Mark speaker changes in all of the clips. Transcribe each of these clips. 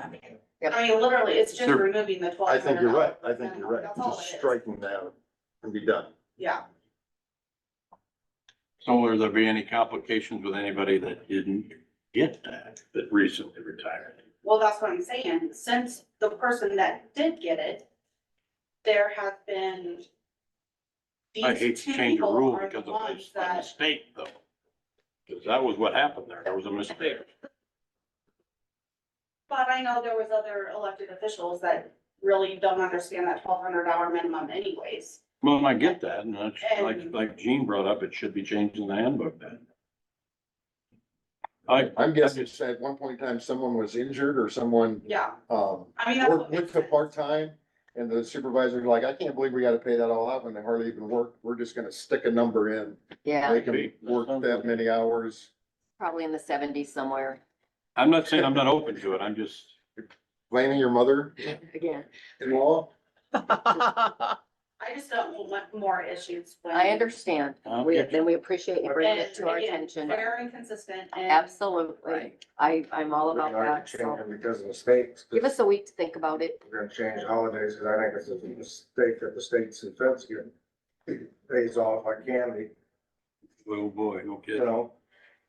Speaker 1: happening. I mean, literally, it's just
Speaker 2: Sure.
Speaker 1: removing the twelve
Speaker 2: I
Speaker 1: hundred.
Speaker 2: think you're right, I think you're right,
Speaker 1: That's all
Speaker 2: just
Speaker 1: it is.
Speaker 2: striking that and be done.
Speaker 1: Yeah,
Speaker 3: So will there be any complications with anybody that didn't get that, that recently retired?
Speaker 1: well, that's what I'm saying, since the person that did get it, there have been.
Speaker 3: I
Speaker 1: these
Speaker 3: hate to
Speaker 1: two
Speaker 3: change a
Speaker 1: people
Speaker 3: rule
Speaker 1: are the
Speaker 3: because of a
Speaker 1: ones
Speaker 3: a
Speaker 1: that-
Speaker 3: mistake though. Because that was what happened there. There was a mistake.
Speaker 1: But I know there was other elected officials that really don't understand that twelve hundred dollar minimum anyways.
Speaker 3: Well, and I get that, and that's like,
Speaker 1: And-
Speaker 3: like Gene brought up, it should be changed in the handbook then. I,
Speaker 2: I'm guessing it's at one point in time, someone was injured or someone,
Speaker 1: Yeah,
Speaker 2: um,
Speaker 1: I mean, that's
Speaker 2: worked,
Speaker 1: what
Speaker 2: went
Speaker 1: makes
Speaker 2: to
Speaker 1: sense.
Speaker 2: part-time. And the supervisor's like, I can't believe we gotta pay that all out when they hardly even work, we're just gonna stick a number in,
Speaker 4: Yeah,
Speaker 2: they can work that many hours.
Speaker 4: probably in the seventies somewhere.
Speaker 3: I'm not saying I'm not open to it. I'm just,
Speaker 2: Blaming your mother-in-law?
Speaker 4: Again,
Speaker 1: I just don't want more issues. when-
Speaker 4: I understand.
Speaker 3: I'll
Speaker 4: We,
Speaker 3: get you.
Speaker 4: then we appreciate you bringing it
Speaker 1: And
Speaker 4: to our
Speaker 1: again,
Speaker 4: attention.
Speaker 1: Fair and consistent and.
Speaker 4: Absolutely. I, I'm all about that. so.
Speaker 5: Because of mistakes,
Speaker 4: Give us a week to think about it.
Speaker 5: we're gonna change holidays, because I think it's a mistake that the states and feds get days off like candy,
Speaker 3: oh boy, no
Speaker 5: you
Speaker 3: kidding.
Speaker 5: know?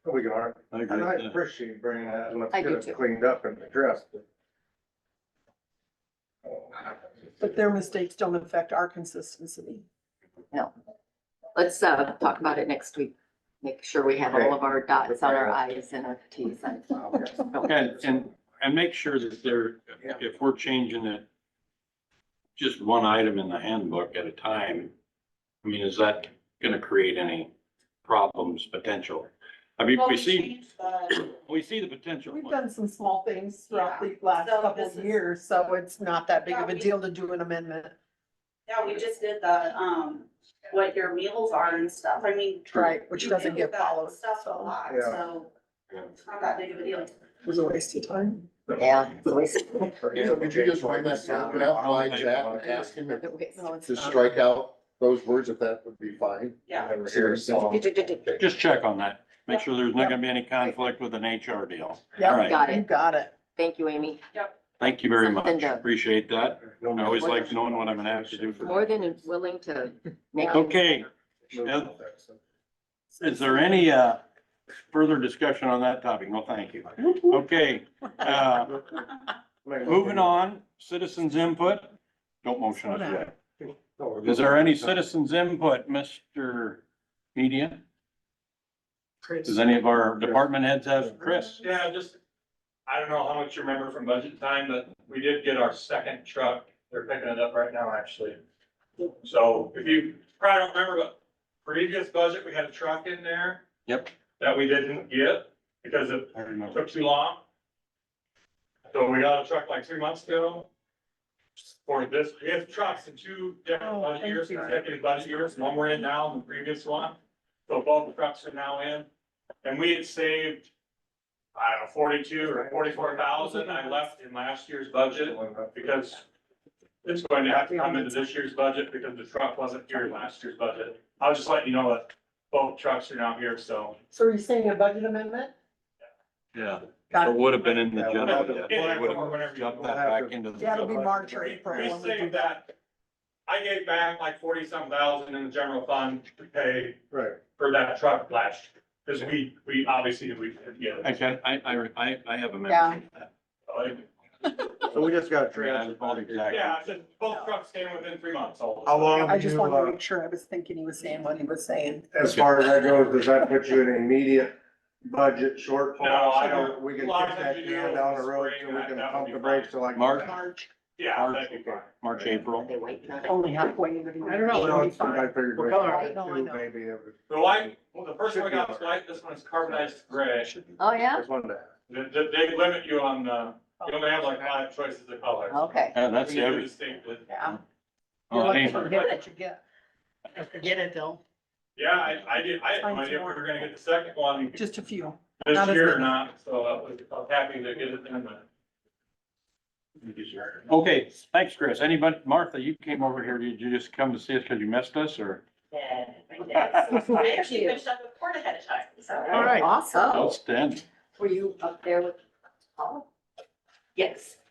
Speaker 5: We can, argue.
Speaker 3: I agree
Speaker 5: and I
Speaker 3: with that.
Speaker 5: appreciate you bringing that, and let's
Speaker 4: I
Speaker 5: get
Speaker 4: do too.
Speaker 5: it cleaned up and addressed. oh,
Speaker 6: But their mistakes don't affect our consistency.
Speaker 4: Let's, uh, talk about it next week. Make sure we have all of our dots on our i's and our t's. and-
Speaker 3: And, and, and make sure that there, if we're changing it, just one item in the handbook at a time, I mean, is that gonna create any problems, potential? I mean,
Speaker 1: Well,
Speaker 3: we see,
Speaker 1: changed the-
Speaker 3: we see the potential.
Speaker 6: We've done some small things throughout the last
Speaker 1: So
Speaker 6: couple
Speaker 1: this
Speaker 6: of
Speaker 1: is-
Speaker 6: years, so it's not that big of
Speaker 1: Yeah,
Speaker 6: a
Speaker 1: we-
Speaker 6: deal to do an amendment.
Speaker 1: Yeah, we just did the, um, what your meals are and stuff, I mean.
Speaker 6: Right, which
Speaker 1: you
Speaker 6: doesn't
Speaker 1: do
Speaker 6: get
Speaker 1: that
Speaker 6: followed,
Speaker 1: Stuff a
Speaker 6: so.
Speaker 1: lot,
Speaker 5: Yeah.
Speaker 1: so it's not that big of a deal.
Speaker 6: It was a waste of time.
Speaker 4: Yeah. it's a waste-
Speaker 2: So could you just run that document out, line that, and ask him if-
Speaker 4: a waste.
Speaker 6: No, it's
Speaker 2: to
Speaker 6: not.
Speaker 2: strike out those words, if that would be fine.
Speaker 1: Yeah,
Speaker 3: Just check on that, make sure there's not gonna be any conflict with an HR deal. All
Speaker 6: Yep,
Speaker 3: right.
Speaker 4: Got
Speaker 6: you
Speaker 4: it.
Speaker 6: got it.
Speaker 4: Thank you, Amy.
Speaker 3: Thank you very much,
Speaker 4: Something to-
Speaker 3: appreciate that. I always like knowing what I'm gonna have to do for-
Speaker 4: More than willing to make.
Speaker 3: Okay, is there any, uh, further discussion on that topic? No, thank you. Okay, uh, Moving on, citizens input. Don't motion us yet. Is there any citizens input, Mr. Media? Does any of our department heads have, Chris?
Speaker 7: Yeah, just, I don't know how much you remember from budget time, but we did get our second truck. They're picking it up right now, actually. So if you probably don't remember, but previous budget, we had a truck in there.
Speaker 3: Yep.
Speaker 7: That we didn't get because it
Speaker 3: I remember.
Speaker 7: took too long. So we got a truck like three months ago. For this, we have trucks in two different
Speaker 6: Oh,
Speaker 7: budget
Speaker 6: thank
Speaker 7: years,
Speaker 6: you.
Speaker 7: consecutive budget years, one we're in now and the previous one. So both the trucks are now in, and we had saved, I don't know, forty-two or forty-four thousand I left in last year's budget because it's going to have to come into this year's budget because the truck wasn't here in last year's budget. I was just letting you know that both trucks are now here, so.
Speaker 6: So are you saying a budget amendment?
Speaker 3: Yeah,
Speaker 6: Got
Speaker 3: it
Speaker 6: it.
Speaker 3: would have been in the general.
Speaker 7: Yeah,
Speaker 3: Would
Speaker 7: whatever
Speaker 3: have
Speaker 7: you-
Speaker 3: Jumped that back into
Speaker 6: Yeah, it'll be
Speaker 3: the.
Speaker 6: March or April.
Speaker 7: We
Speaker 6: when we do
Speaker 7: saved that. I gave back like forty some thousand in the general fund to pay
Speaker 5: Right.
Speaker 7: for that truck last, because we, we obviously, we, yeah.
Speaker 3: Okay, I, I, I, I have a
Speaker 6: Yeah.
Speaker 3: memory. of that.
Speaker 5: So we just gotta
Speaker 3: I mean, I
Speaker 5: transfer.
Speaker 3: recall exactly.
Speaker 7: Yeah, I said both trucks came within three months. all of a
Speaker 5: How
Speaker 7: sudden.
Speaker 5: long?
Speaker 6: I just
Speaker 5: you,
Speaker 6: wanted
Speaker 5: uh,
Speaker 6: to make sure I was thinking he was saying what he was saying.
Speaker 5: As far as that goes, does that put you in immediate budget shortfall?
Speaker 7: No, I
Speaker 5: So
Speaker 7: don't-
Speaker 5: We can
Speaker 7: a lot
Speaker 5: kick
Speaker 7: of
Speaker 5: that
Speaker 7: times you
Speaker 5: can
Speaker 7: do
Speaker 5: down the
Speaker 7: in the
Speaker 5: road
Speaker 7: spring,
Speaker 5: so we
Speaker 7: that-
Speaker 5: can
Speaker 7: that would
Speaker 5: pump
Speaker 7: be
Speaker 5: the brakes till like.
Speaker 3: March.
Speaker 6: March,
Speaker 7: Yeah, that'd be fine.
Speaker 3: March, April.
Speaker 4: They wait. not-
Speaker 6: only halfway. into the year.
Speaker 5: I don't know. I figured.
Speaker 6: What color? I don't know.
Speaker 5: Maybe it was.
Speaker 7: The white, well, the first one I got was white, this one's carbonized gray.
Speaker 4: Oh, yeah?
Speaker 5: Just wanted to.
Speaker 7: They, they- they limit you on, uh, you only have like five choices of colors.
Speaker 4: Okay.
Speaker 3: Yeah, that's
Speaker 7: You do
Speaker 3: every.
Speaker 7: distinctive.
Speaker 6: Yeah. You're
Speaker 3: Oh,
Speaker 6: lucky
Speaker 3: hey,
Speaker 6: to forget what you get. Forget it though.
Speaker 7: Yeah, I, I did, I had no idea if we were gonna get the second one this
Speaker 6: Just a few. not as
Speaker 7: year or
Speaker 6: many.
Speaker 7: not, so I was, I was happy to get it in the.
Speaker 3: Okay, thanks, Chris. Anybody, Martha, you came over here, did you just come to see us because you missed us or?
Speaker 1: I actually finished up the report ahead of time, so.
Speaker 3: All right.
Speaker 4: Awesome.
Speaker 3: Outstanding.
Speaker 4: Were you up there with? Paul? Yes.